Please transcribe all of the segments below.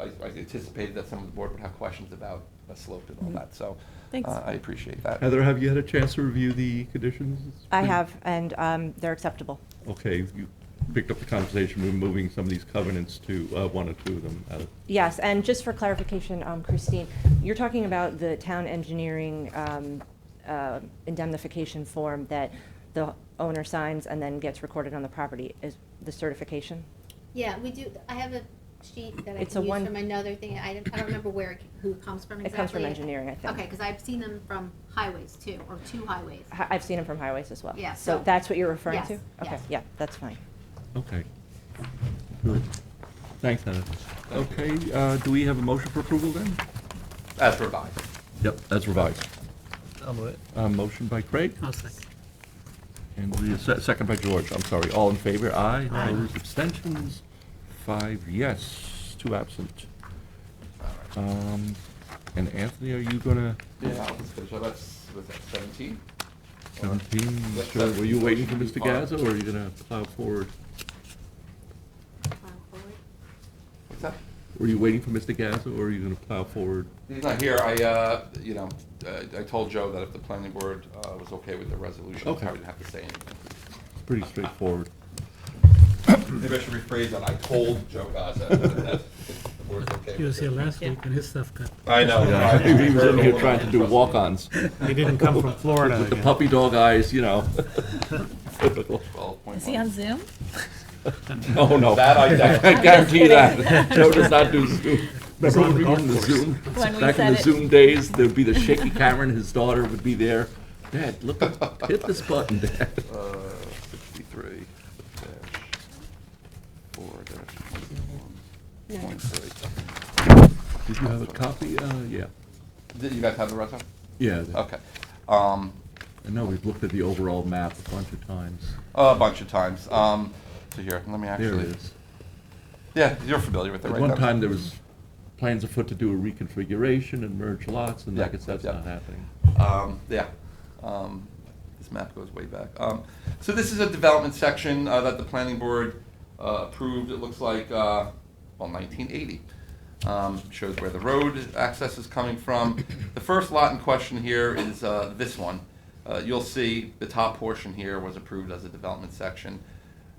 I I anticipated that some of the board would have questions about a slope and all Mm-hmm. Mhm. that, so. Thanks. uh, I appreciate that. Heather, have you had a chance to review the conditions? I have, and um, they're acceptable. Okay, you picked up the conversation, we're moving some of these covenants to, uh, one or two of them out of Yes, and just for clarification, um, Christine, you're talking about the town engineering um, uh, indemnification form that the owner signs and then gets recorded on the property, is the certification? Yeah, we do, I have a sheet that I It's a can use one- from another thing, I don't, I don't remember where, it c- who it comes from It comes from exactly. engineering, I think. Okay, because I've seen them from highways too, or two highways. Hi- I've seen them from highways as well. Yeah, So so- that's what you're referring Yes, to? Okay, yes. yeah, that's fine. Okay. Good. Thanks, Heather. Thank you. Okay, uh, do we have a motion for approval then? As revised. Yep, that's revised. I'll move it. Uh, motion by Craig, I'll second. and we, se- second by George, I'm sorry, all in favor, aye. Aye. Opposed, abstentions, five yes, two absent. All right. Um, and Anthony, are you gonna, Yeah, I'll just finish up. that's, was that seventeen? seventeen, Yes, sure, were you waiting for Mr. seventeen. Gaza, or are you gonna plow forward? File forward. What's that? Were you waiting for Mr. Gaza, or are you gonna plow forward? He's not here, I, uh, you know, I I told Joe that if the planning board uh, was okay with the resolution, Okay. I wouldn't have to say anything. Pretty straightforward. Maybe I should rephrase that, I told Joe Gaza that if the board's okay. He with was here it. last week and his stuff got, I know. Yeah, He was in here trying to do walk-ons. Oh, he didn't come from Florida With the again. puppy dog eyes, you know. Typical. Twelve point Is he on one. Zoom? Oh, no. That I doubt. I guarantee that. Joe does not do Zoom. He's Remember on the when we were golf in the course. Zoom? When we Back in said the it. Zoom days, there'd be the shaky Cameron, his daughter would be there. Dad, look, hit this button, Dad. Uh, sixty-three dash four dash No. twenty-one point three. Did you have a copy? Uh, yeah. Did you guys have the rest of it? Yeah. Okay. Um, I know, we've looked at the overall map a bunch of times. a bunch of times. Um, so here, let me There it actually. is. Yeah, you're familiar with it, At right? one That's- time, there was plans afoot to do a reconfiguration and merge lots, and I Yeah, guess that's yeah. not happening. Um, yeah, um, this map goes way back. Um, so this is a development section uh, that the planning board uh, approved. It looks like uh, well, 1980. Um, shows where the road access is coming from. The first lot in question here is uh, this one. Uh, you'll see the top portion here was approved as a development section.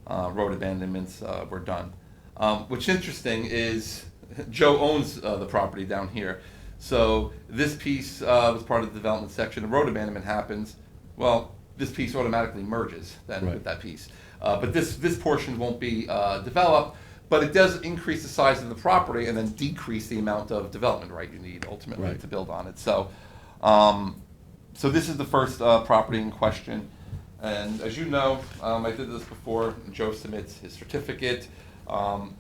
Uh, road abandonments uh, were done. Um, what's interesting is Joe owns uh, the property down here. So this piece uh, was part of the development section. The road abandonment happens. Well, this piece automatically merges then with Right. that piece. Uh, but this this portion won't be uh, developed. But it does increase the size of the property and then decrease the amount of development right you need ultimately Right. to build on it. So, um, so this is the first uh, property in question. And as you know, um, I did this before. Joe submits his certificate. Um,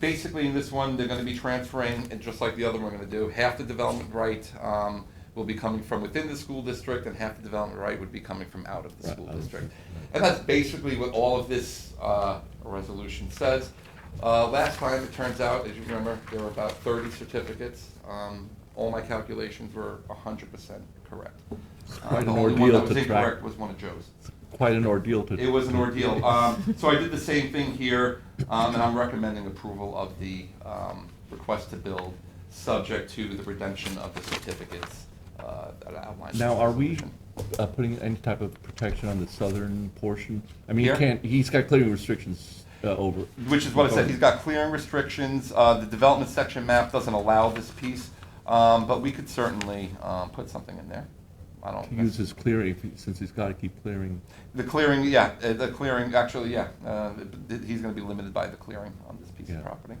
basically, in this one, they're going to be transferring, and just like the other one, we're going to do half the development right um, will be coming from within the school district, and half the development right would be coming from out of the Right, school out of- district. right. And that's basically what all of this uh, resolution says. Uh, Last time, it turns out, as you remember, there were about 30 certificates. Um, All my calculations were 100% correct. Uh, Quite an The only one ordeal that was to track. incorrect was one of Joe's. Quite an ordeal to. It was an ordeal. Um, So I did the same thing here, um, and I'm recommending approval of the um, request to build, subject to the redemption of the certificates uh, that I outlined. in Now, the are we resolution. uh, putting any type of protection on the southern portion? I mean, he Here? can't, he's got clearing restrictions uh, over. Which is what I said, he's got clearing restrictions, uh, the development section map doesn't allow this piece, um, but we could certainly, um, put something in there. I To use don't, his clearing, if he- since he's got to keep clearing. the clearing, yeah, uh, the clearing, actually, yeah, uh, th- he's gonna be limited by the clearing on this piece Yeah. of property.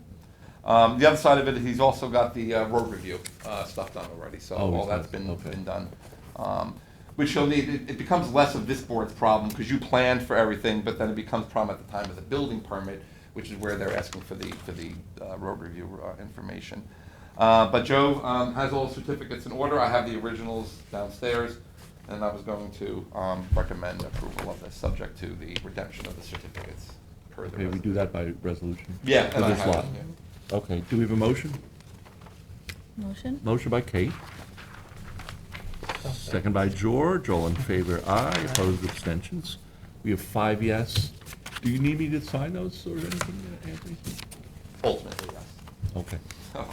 Um, the other side of it, he's also got the, uh, road review, uh, stuff done already, so Oh, all he's that's done, been, okay. been done. Um, Which he'll need, it, it becomes less of this board's problem, because you planned for everything, but then it becomes a problem at the time of the building permit, which is where they're asking for the, for the uh, road review uh, information. Uh, But Joe um, has all the certificates in order, I have the originals downstairs, and I was going to um, recommend approval of this, subject to the redemption of the certificates per the Okay, we do that by resolution. Yeah, For and I this have it, lot. yeah. Okay, do we have a motion? Motion? Motion by Kate. Second by George, all in favor, aye, opposed, abstentions. We have five yes. Do you need me to sign those or anything, Anthony? Ultimately, yes. Okay. So,